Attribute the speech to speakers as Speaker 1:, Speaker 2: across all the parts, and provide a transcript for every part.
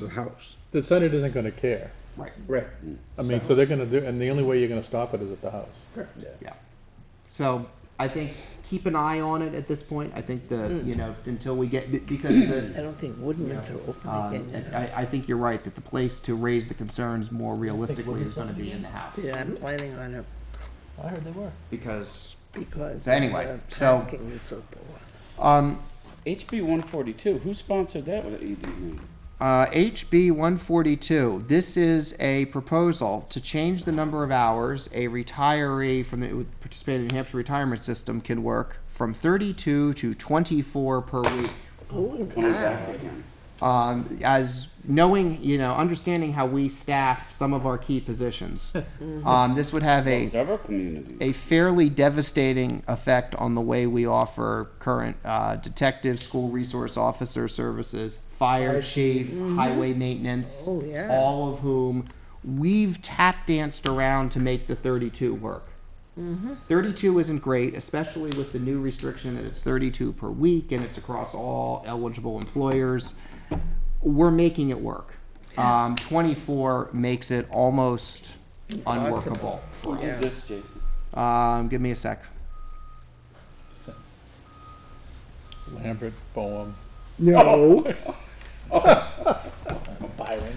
Speaker 1: the house.
Speaker 2: The Senate isn't gonna care.
Speaker 3: Right,
Speaker 1: Right.
Speaker 2: I mean, so they're gonna do, and the only way you're gonna stop it is at the house.
Speaker 3: yeah. So I think keep an eye on it at this point. I think the, you know, until we get, be- because the,
Speaker 4: I don't think Woodman's are open
Speaker 3: um,
Speaker 4: again.
Speaker 3: I, I think you're right, that the place to raise the concerns more realistically is gonna be in the house.
Speaker 4: Yeah, I'm planning on it
Speaker 2: I heard they were.
Speaker 3: Because,
Speaker 4: because.
Speaker 3: So anyway,
Speaker 4: of the
Speaker 3: so-
Speaker 4: Parking is so poor.
Speaker 3: um,
Speaker 5: HB 142, who sponsored that E with EDU?
Speaker 3: Uh, HB 142, this is a proposal to change the number of hours a retiree from the, participating in the New Hampshire retirement system can work from 32 to 24 per week.
Speaker 5: Coming back again.
Speaker 3: Um, as knowing, you know, understanding how we staff some of our key positions, um, this would have a
Speaker 5: Several communities.
Speaker 3: a fairly devastating effect on the way we offer current uh, detective, school resource officer services, fire chief, highway maintenance,
Speaker 4: Oh, yeah.
Speaker 3: all of whom we've tap danced around to make the 32 work. 32 isn't great, especially with the new restriction that it's 32 per week and it's across all eligible employers. We're making it work. Um, 24 makes it almost unworkable for us.
Speaker 5: Who is this, Jason?
Speaker 3: Um, give me a sec.
Speaker 2: Lambert, Boehm,
Speaker 1: No. Oh.
Speaker 2: Byron.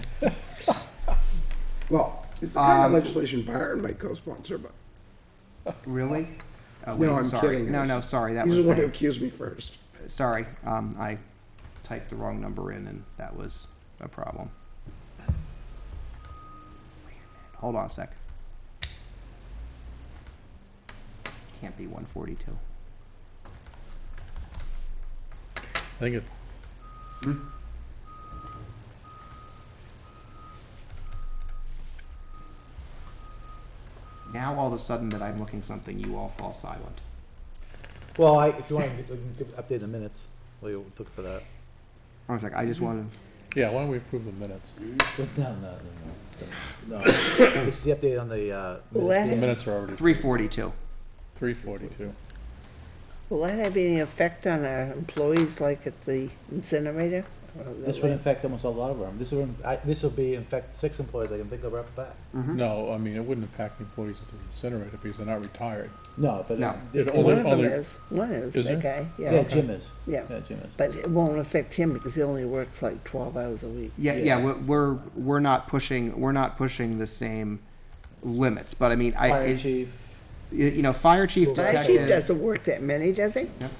Speaker 1: Well, it's the kind of
Speaker 3: Um,
Speaker 1: legislation Byron might co-sponsor, but
Speaker 3: Really? Oh,
Speaker 1: No,
Speaker 3: wait,
Speaker 1: I'm
Speaker 3: sorry.
Speaker 1: kidding.
Speaker 3: No, no, sorry. That
Speaker 1: he's the
Speaker 3: was uh,
Speaker 1: one who accused me first.
Speaker 3: sorry. Um, I typed the wrong number in, and that was a problem. Hold on a sec. Can't be 142.
Speaker 2: I think it,
Speaker 3: Now all of a sudden that I'm looking something, you all fall silent.
Speaker 6: Well, I, if you want, to update the minutes, what you took for that.
Speaker 3: Hold on a sec. I just wanted.
Speaker 2: yeah, why don't we approve the minutes?
Speaker 6: No, no, no, no. no. This is uh, the update on the, uh. minutes.
Speaker 2: The minutes are already
Speaker 3: 342.
Speaker 2: three forty-two.
Speaker 4: Will that have any effect on our employees, like at the incinerator? Or
Speaker 6: This
Speaker 4: the-
Speaker 6: would affect almost a lot of them. This will, I, this will be, in fact, six employees, I can think of right back.
Speaker 2: No, I mean, it wouldn't impact the employees at the incinerator because they're not retired.
Speaker 6: No, but.
Speaker 3: No.
Speaker 6: it-
Speaker 2: It
Speaker 6: it-
Speaker 4: One
Speaker 2: only-
Speaker 4: of them is, one is,
Speaker 2: Is
Speaker 4: the
Speaker 2: there?
Speaker 4: guy,
Speaker 6: Yeah,
Speaker 4: yeah,
Speaker 6: Jim is.
Speaker 4: yeah.
Speaker 6: Yeah, Jim is.
Speaker 4: But it won't affect him because he only works like twelve hours a week.
Speaker 3: Yeah, yeah, we're, we're we're not pushing we're not pushing the same limits, but I mean, I
Speaker 6: Fire
Speaker 3: it's,
Speaker 6: chief,
Speaker 3: you, you know, fire chief
Speaker 6: Well,
Speaker 4: My
Speaker 3: detective.
Speaker 4: chief doesn't work that many, does he?
Speaker 6: but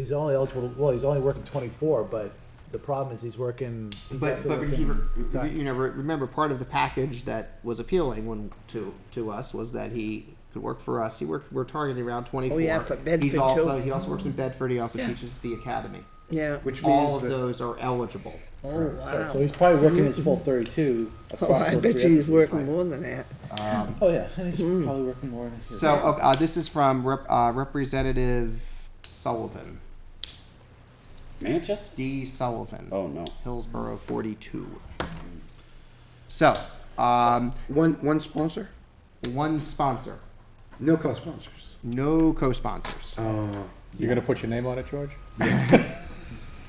Speaker 6: he's only eligible, well, he's only working twenty-four, but the problem is he's working. he's
Speaker 3: But,
Speaker 6: also
Speaker 3: but
Speaker 6: working
Speaker 3: he,
Speaker 6: time.
Speaker 3: you know, re- remember, part of the package that was appealing when, to, to us was that he could work for us. He worked, we're targeting around twenty-four.
Speaker 4: Oh, yeah, for Bedford,
Speaker 3: He's
Speaker 4: too.
Speaker 3: also, he also works in Bedford, he also teaches at the academy.
Speaker 4: Yeah.
Speaker 1: Which
Speaker 3: All
Speaker 1: means
Speaker 3: of
Speaker 1: that,
Speaker 3: those are eligible.
Speaker 4: Oh,
Speaker 6: So
Speaker 4: wow.
Speaker 6: he's probably working his full thirty-two
Speaker 4: Oh,
Speaker 6: across
Speaker 4: I
Speaker 6: those
Speaker 4: bet
Speaker 6: three
Speaker 4: you he's Hmm.
Speaker 6: entities.
Speaker 4: working more than that.
Speaker 6: Oh, yeah, and he's probably working more. than he is.
Speaker 3: So, okay, uh, this is from Rep, uh, Representative Sullivan,
Speaker 5: Manchester?
Speaker 3: D Sullivan,
Speaker 5: Oh, no.
Speaker 3: Hillsborough forty-two. So, um,
Speaker 1: one, one sponsor,
Speaker 3: one sponsor,
Speaker 1: no co-sponsors.
Speaker 3: no co-sponsors.
Speaker 1: Uh,
Speaker 2: You're gonna put your name on it, George?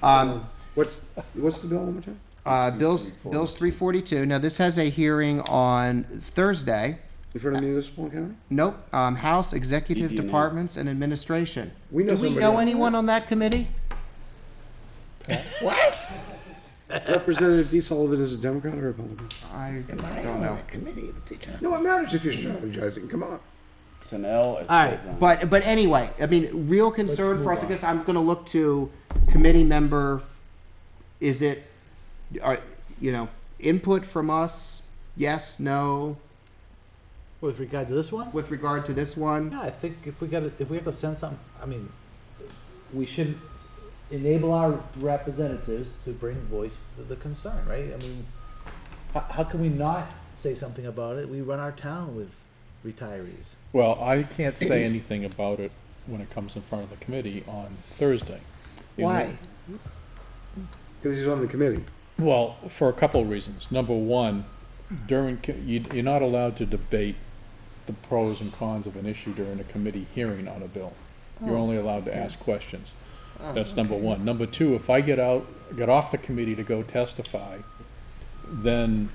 Speaker 3: Um,
Speaker 1: what's, what's the bill one more time?
Speaker 3: Uh, Bill's, Bill's three forty-two. Now, this has a hearing on Thursday.
Speaker 1: In front of municipal county?
Speaker 3: Nope, um, House Executive
Speaker 5: ED&E.
Speaker 3: Departments and Administration.
Speaker 1: We know
Speaker 3: Do we
Speaker 1: somebody
Speaker 3: know
Speaker 1: on-
Speaker 3: anyone on that committee?
Speaker 1: Representative D Sullivan is a Democrat or Republican?
Speaker 3: I
Speaker 4: Am I
Speaker 3: don't
Speaker 4: on
Speaker 3: know.
Speaker 4: that committee at the time?
Speaker 1: No, it matters if you're strategizing, come on.
Speaker 5: It's an L. It
Speaker 3: All right,
Speaker 5: says on-
Speaker 3: but, but anyway, I mean, real concern for us, I guess I'm gonna look to committee member, is it, are, you know, input from us? Yes, no,
Speaker 6: With regard to this one?
Speaker 3: with regard to this one?
Speaker 6: Yeah, I think if we got, if we have to send something, I mean, we should enable our representatives to bring voice to the concern, right? I mean, how, how can we not say something about it? We run our town with retirees.
Speaker 2: Well, I can't say anything about it when it comes in front of the committee on Thursday. The only-
Speaker 4: Why?
Speaker 1: Because he's on the committee.
Speaker 2: Well, for a couple of reasons. Number one, during, co- you- you're not allowed to debate the pros and cons of an issue during a committee hearing on a bill. You're only allowed to ask questions. That's number one. Number two, if I get out, get off the committee to go testify, then